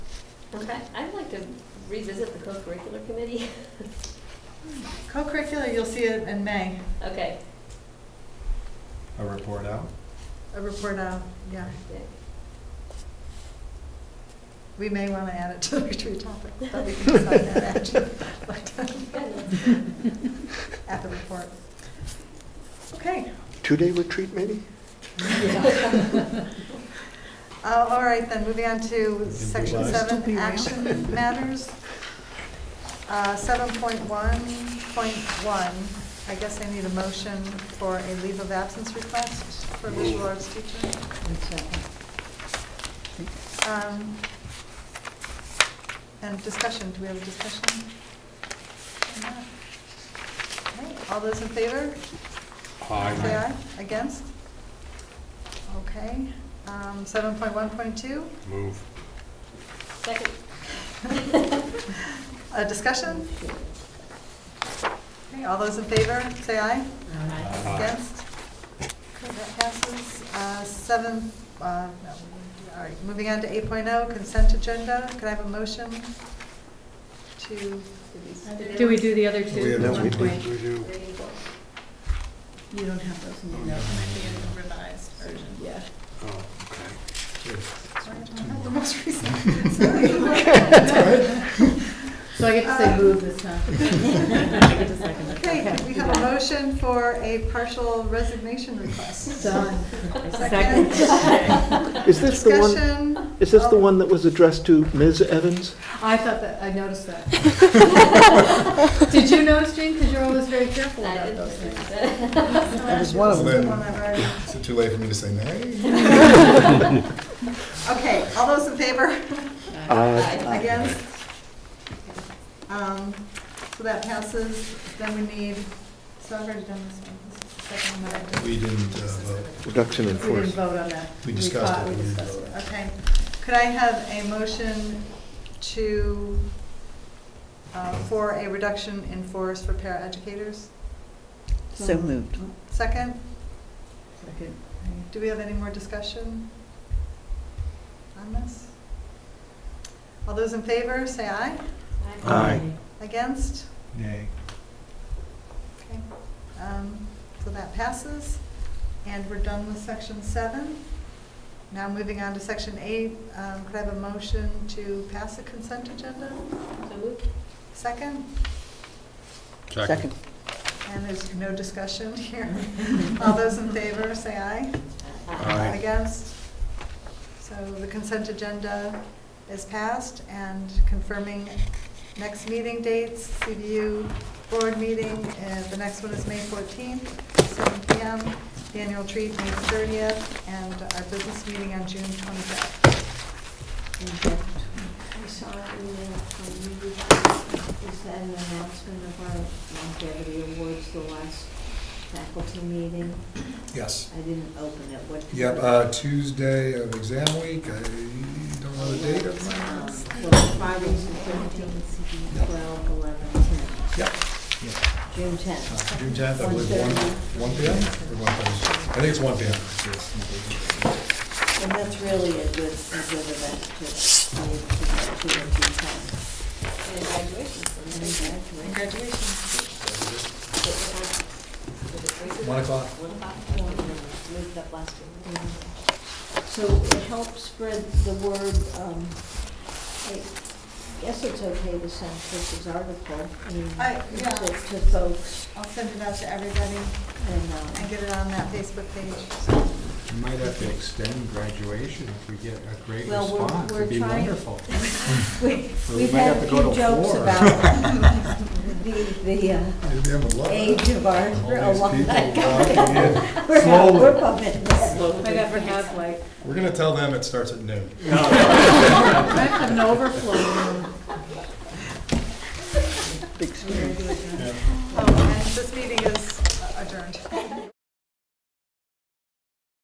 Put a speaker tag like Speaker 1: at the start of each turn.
Speaker 1: Okay, I'd like to revisit the co-curricular committee.
Speaker 2: Co-curricular, you'll see it in May,
Speaker 1: Okay.
Speaker 3: A report out?
Speaker 2: a report out, yeah. We may want to add it to the retreat topic, but we can decide that after, uh, at the report. Okay,
Speaker 4: Two-day retreat, maybe?
Speaker 2: Uh, all right, then, moving on to section
Speaker 3: Revised.
Speaker 2: seven, action matters. Uh, Seven point one, point one, I guess I need a motion for a leave of absence request for visual arts teacher. Um, And discussion, do we have a discussion? on that? Okay, All those in favor? Say aye. Against? Okay. Um, 7.1.2,
Speaker 3: Move.
Speaker 1: Second.
Speaker 2: a discussion? Okay, all those in favor, say aye. Against? Okay, that passes. Uh, 7, uh, no, we didn't do- all right, moving on to 8.0, consent agenda. Could I have a motion to,
Speaker 5: Do we do the other two?
Speaker 3: We have
Speaker 4: No,
Speaker 3: two.
Speaker 4: we
Speaker 5: One
Speaker 4: do.
Speaker 5: point.
Speaker 3: We do.
Speaker 5: You don't have those
Speaker 6: Oh,
Speaker 5: in
Speaker 3: No.
Speaker 5: there.
Speaker 7: revised version.
Speaker 5: Yeah.
Speaker 3: Oh, okay.
Speaker 2: sorry, I don't have the most recent.
Speaker 5: So I get to
Speaker 8: Um,
Speaker 5: say move this time. I get to second it.
Speaker 2: Okay, we have a motion for a partial resignation request.
Speaker 5: Done.
Speaker 2: Second.
Speaker 4: Is this the one,
Speaker 2: Discussion. Oh.
Speaker 4: is this the one that was addressed to Ms. Evans?
Speaker 5: I thought that, I noticed that. Did you notice, Jean? Because you're always very careful
Speaker 1: I
Speaker 5: about
Speaker 1: didn't
Speaker 5: those things.
Speaker 1: see
Speaker 2: That
Speaker 6: was one of them.
Speaker 2: them.
Speaker 6: Is it too late for me to say nay?
Speaker 2: Okay, all those in favor?
Speaker 4: Uh,
Speaker 1: that.
Speaker 2: Against? Um, So that passes, then we need, so I've already done this one. This is the second one that I did.
Speaker 6: We didn't uh, vote.
Speaker 4: Reduction in
Speaker 5: We didn't
Speaker 4: force.
Speaker 5: vote on that.
Speaker 6: We discussed
Speaker 5: thought
Speaker 6: it,
Speaker 5: We
Speaker 6: but we didn't
Speaker 5: discussed
Speaker 6: vote.
Speaker 5: it.
Speaker 2: Okay, could I have a motion to, uh, for a reduction in force for paraeducators?
Speaker 5: So moved.
Speaker 2: Second?
Speaker 5: Second.
Speaker 2: Do we have any more discussion on this? All those in favor, say aye.
Speaker 4: Aye.
Speaker 2: Against?
Speaker 3: Nay.
Speaker 2: Okay. Um, So that passes, and we're done with section seven. Now moving on to section eight, um, could I have a motion to pass a consent agenda?
Speaker 1: So moved.
Speaker 2: Second?
Speaker 3: Second.
Speaker 2: And there's no discussion here. All those in favor, say aye.
Speaker 3: Aye.
Speaker 2: Against? So the consent agenda is passed and confirming next meeting dates, CBU board meeting, uh, the next one is May 14th, seven PM, the annual treat, May 30th, and our business meeting on June 25th.
Speaker 8: I saw an email from you, is that an announcement of our longevity awards, the last faculty meeting?
Speaker 6: Yes.
Speaker 8: I didn't open it, what?
Speaker 6: Yep, uh, Tuesday of exam week, I don't know the date of mine.
Speaker 8: Well, Fridays the thirteenth, twelve, eleven, ten,
Speaker 6: Yep,
Speaker 8: June tenth.
Speaker 6: uh, June tenth, I believe, one, one P M? Or one thirty? I think it's one P M.
Speaker 8: And that's really a good, a good event to, to, to, to attend.
Speaker 1: And graduation.
Speaker 8: And graduate.
Speaker 6: One o'clock.
Speaker 8: Moved up last year. So it helps spread the word, um, I guess it's okay to send Chris's article, I mean,
Speaker 2: I- yeah.
Speaker 8: to, to folks
Speaker 2: I'll send it out to everybody
Speaker 8: and, um,
Speaker 2: and get it on that Facebook page.
Speaker 3: You might have to extend graduation if we get a great
Speaker 8: Well, we're-
Speaker 3: response.
Speaker 8: we're
Speaker 3: It'd be
Speaker 8: trying-
Speaker 3: wonderful.
Speaker 8: we,
Speaker 3: So we
Speaker 8: we've
Speaker 3: might
Speaker 8: had
Speaker 3: have
Speaker 8: a
Speaker 3: to go
Speaker 8: few
Speaker 3: to
Speaker 8: jokes
Speaker 3: four.
Speaker 8: about the, the, uh,
Speaker 6: Maybe I would love that.
Speaker 8: age of our
Speaker 6: All these people
Speaker 8: alumni.
Speaker 6: walking in.
Speaker 8: We're,
Speaker 3: Slowly.
Speaker 8: we're pumping that.
Speaker 5: I never have like,
Speaker 6: We're gonna tell them it starts at noon.
Speaker 5: I have an overflow room.